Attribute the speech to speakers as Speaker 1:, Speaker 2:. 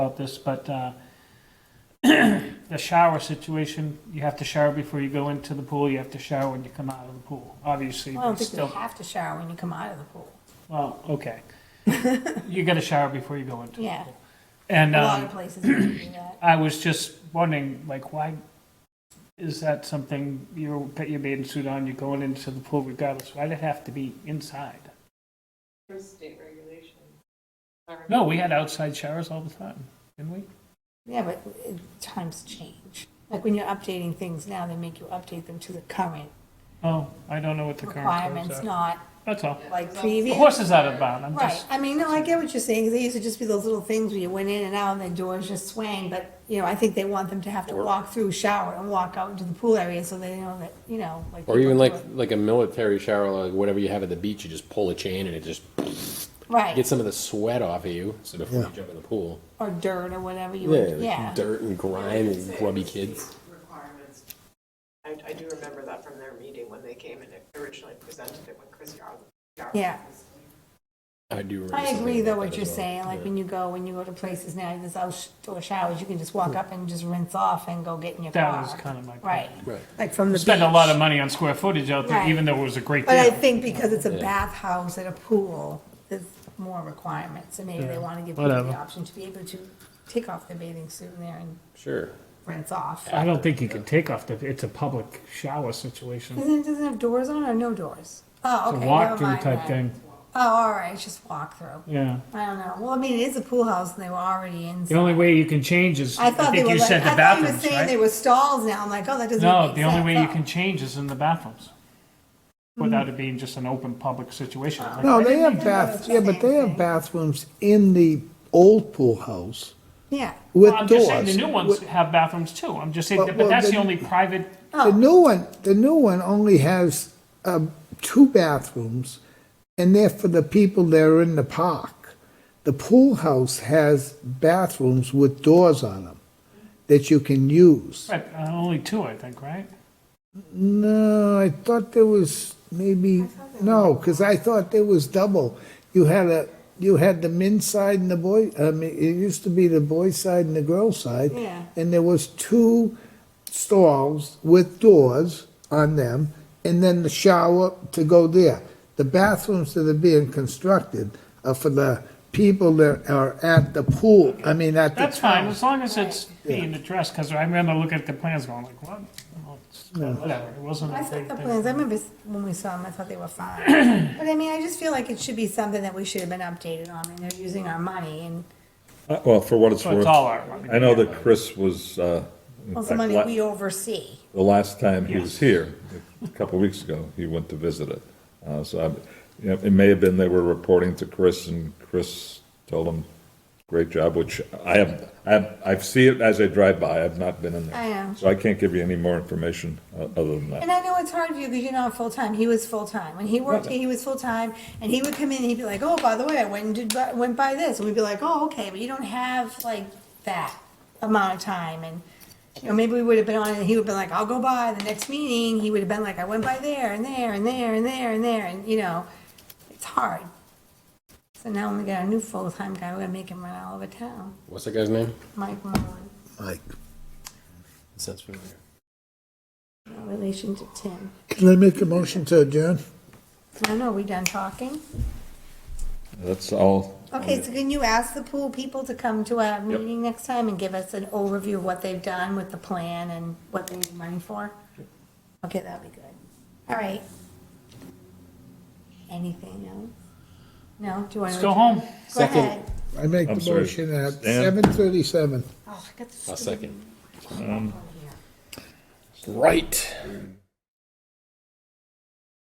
Speaker 1: about this, but uh, the shower situation, you have to shower before you go into the pool, you have to shower when you come out of the pool, obviously.
Speaker 2: I don't
Speaker 1: but
Speaker 2: think you
Speaker 1: still,
Speaker 2: have to shower when you come out of the pool.
Speaker 1: Well, okay. You gotta shower before you go into the
Speaker 2: Yeah.
Speaker 1: pool. And
Speaker 2: A lot
Speaker 1: um,
Speaker 2: of places don't do that.
Speaker 1: I was just wondering, like, why is that something, you got your bathing suit on, you're going into the pool regardless, why'd it have to be inside?
Speaker 3: There's state regulation.
Speaker 1: No, we had outside showers all the time, didn't we?
Speaker 2: Yeah, but uh, times change. Like when you're updating things now, they make you update them to the current
Speaker 1: Oh, I don't know what the current codes
Speaker 2: requirements,
Speaker 1: are.
Speaker 2: not
Speaker 1: That's all.
Speaker 2: like
Speaker 1: The
Speaker 2: previous.
Speaker 1: horse is out of bound, I'm
Speaker 2: Right,
Speaker 1: just,
Speaker 2: I mean, no, I get what you're saying, 'cause they used to just be those little things where you went in and out and the doors just swang, but, you know, I think they want them to have to walk through, shower, and walk out into the pool area so they know that, you know, like.
Speaker 4: Or even
Speaker 2: people
Speaker 4: like,
Speaker 2: do it.
Speaker 4: like a military shower, like whatever you have at the beach, you just pull a chain and it just
Speaker 2: Right,
Speaker 4: gets some of the sweat off of you. So before you jump in the pool,
Speaker 2: or dirt or whatever you,
Speaker 4: yeah,
Speaker 2: would- yeah,
Speaker 4: dirt and grime and
Speaker 3: Say
Speaker 4: grubby
Speaker 3: it's state
Speaker 4: kids.
Speaker 3: Requirements. I, I do remember that from their meeting when they came and originally presented it when Chris Yar. Yar-
Speaker 2: Yeah.
Speaker 4: I do. remember
Speaker 2: I
Speaker 4: something
Speaker 2: agree though
Speaker 4: about
Speaker 2: what
Speaker 4: that
Speaker 2: you're
Speaker 4: as well.
Speaker 2: saying, like when you go, when you go to places now, there's outdoor showers, you can just walk up and just rinse off and go get in your
Speaker 1: that was
Speaker 2: car.
Speaker 1: kind of my point.
Speaker 2: Right,
Speaker 4: Right.
Speaker 2: like from the beach.
Speaker 1: Spend a lot of money on square footage out there,
Speaker 2: Right.
Speaker 1: even though it was a great
Speaker 2: But I
Speaker 1: deal.
Speaker 2: think because it's a
Speaker 4: Yeah.
Speaker 2: bathhouse and a pool, there's more requirements, and maybe
Speaker 1: Yeah,
Speaker 2: they want to give people
Speaker 1: whatever.
Speaker 2: the option to be able to take off their bathing suit in there and
Speaker 4: Sure.
Speaker 2: rinse off.
Speaker 1: I don't think you can take off the, it's a public shower situation.
Speaker 2: Doesn't, doesn't it have doors on or no doors? Oh,
Speaker 1: It's a
Speaker 2: okay, never
Speaker 1: walk-through
Speaker 2: mind
Speaker 1: type
Speaker 2: then.
Speaker 1: thing,
Speaker 2: Oh, all right, it's just walk through.
Speaker 1: yeah.
Speaker 2: I don't know. Well, I mean, it is a pool house and they were already
Speaker 1: The
Speaker 2: inside.
Speaker 1: only way you can change is,
Speaker 2: I
Speaker 1: I
Speaker 2: thought they
Speaker 1: think
Speaker 2: were
Speaker 1: you
Speaker 2: like,
Speaker 1: said the
Speaker 2: I thought you were
Speaker 1: bathrooms,
Speaker 2: saying they
Speaker 1: right?
Speaker 2: were stalls now. I'm like, oh, that doesn't
Speaker 1: No,
Speaker 2: make
Speaker 1: the only
Speaker 2: sense.
Speaker 1: way you
Speaker 2: Oh.
Speaker 1: can change is in the bathrooms,
Speaker 2: Hmm.
Speaker 1: without it being just an open public situation.
Speaker 2: Ah.
Speaker 1: Like,
Speaker 5: No, they have
Speaker 2: Yeah,
Speaker 5: baths,
Speaker 2: it's
Speaker 5: yeah, but they have bathrooms in the old pool house
Speaker 2: Yeah.
Speaker 5: with
Speaker 1: Well, I'm
Speaker 5: doors.
Speaker 1: just saying, the new ones have bathrooms too, I'm just saying,
Speaker 5: Well,
Speaker 1: but
Speaker 5: well,
Speaker 1: that's the
Speaker 5: then-
Speaker 1: only private,
Speaker 5: The new one, the new one only has, um, two bathrooms, and they're for the people that are in the park. The pool house has bathrooms with doors on them that you can use.
Speaker 1: right, uh, only two, I think, right?
Speaker 5: No, I thought there was maybe, no, because I thought there was double. You had a, you had the men's side and the boy, I mean, it used to be the boys' side and the girls' side.
Speaker 2: Yeah.
Speaker 5: And there was two stalls with doors on them, and then the shower to go there. The bathrooms that are being constructed are for the people that are at the pool, I mean, at the
Speaker 1: That's fine,
Speaker 5: town.
Speaker 1: as long as it's being addressed, because I remember looking at the plans going like, what? Well, it's- Whatever, it wasn't
Speaker 2: I
Speaker 1: a
Speaker 2: thought
Speaker 1: big
Speaker 2: the
Speaker 1: thing.
Speaker 2: plans, I remember s- when we saw them, I thought they were fine. But I mean, I just feel like it should be something that we should have been updated on, and they're using our money, and,
Speaker 6: Uh, Well, for what it's
Speaker 1: So it's
Speaker 6: worth,
Speaker 1: all our money.
Speaker 6: I know that Chris was, uh, in
Speaker 2: well, the
Speaker 6: fact,
Speaker 2: money
Speaker 6: la-
Speaker 2: we oversee.
Speaker 6: the last time he was here, a couple of weeks ago, he went to visit it. Uh, So, I'm- you know, it may have been they were reporting to Chris, and Chris told him, great job, which I have, I have, I see it as I drive by, I've not been in there.
Speaker 2: I know.
Speaker 6: So I can't give you any more information uh, other than that.
Speaker 2: And I know it's hard for you, because you're not full-time, he was full-time, when he worked, here, he was full-time, and he would come in, and he'd be like, oh, by the way, I went and did, bu- went by this, and we'd be like, oh, okay, but you don't have, like, that amount of time, and, you know, maybe we would have been on, it, and he would've been like, I'll go by the next meeting, he would've been like, I went by there, and there, and there, and there, and there, and, you know, it's hard. So now when we got a new full-time guy, we're gonna make him run all over town,
Speaker 4: What's that guy's name?
Speaker 2: Mike Mullin,
Speaker 5: Mike,
Speaker 4: Sounds familiar.
Speaker 2: no relation to Tim.
Speaker 5: Can I make a motion to adjourn?
Speaker 2: No, no, we done talking?
Speaker 6: That's all.
Speaker 2: Okay, so can you ask the pool people to come to our meeting next time and give us an overview of what they've done with the plan and what they need money for? Okay, that'd be good. All right. Anything else? No, do you want to?
Speaker 1: Let's go home.
Speaker 2: Go ahead.
Speaker 5: I make
Speaker 6: I'm
Speaker 5: the
Speaker 6: sorry,
Speaker 5: motion at
Speaker 6: Stan?
Speaker 5: seven thirty-seven.
Speaker 2: Oh, I got the
Speaker 4: A
Speaker 2: stupid
Speaker 4: second.
Speaker 2: phone here.
Speaker 4: Right.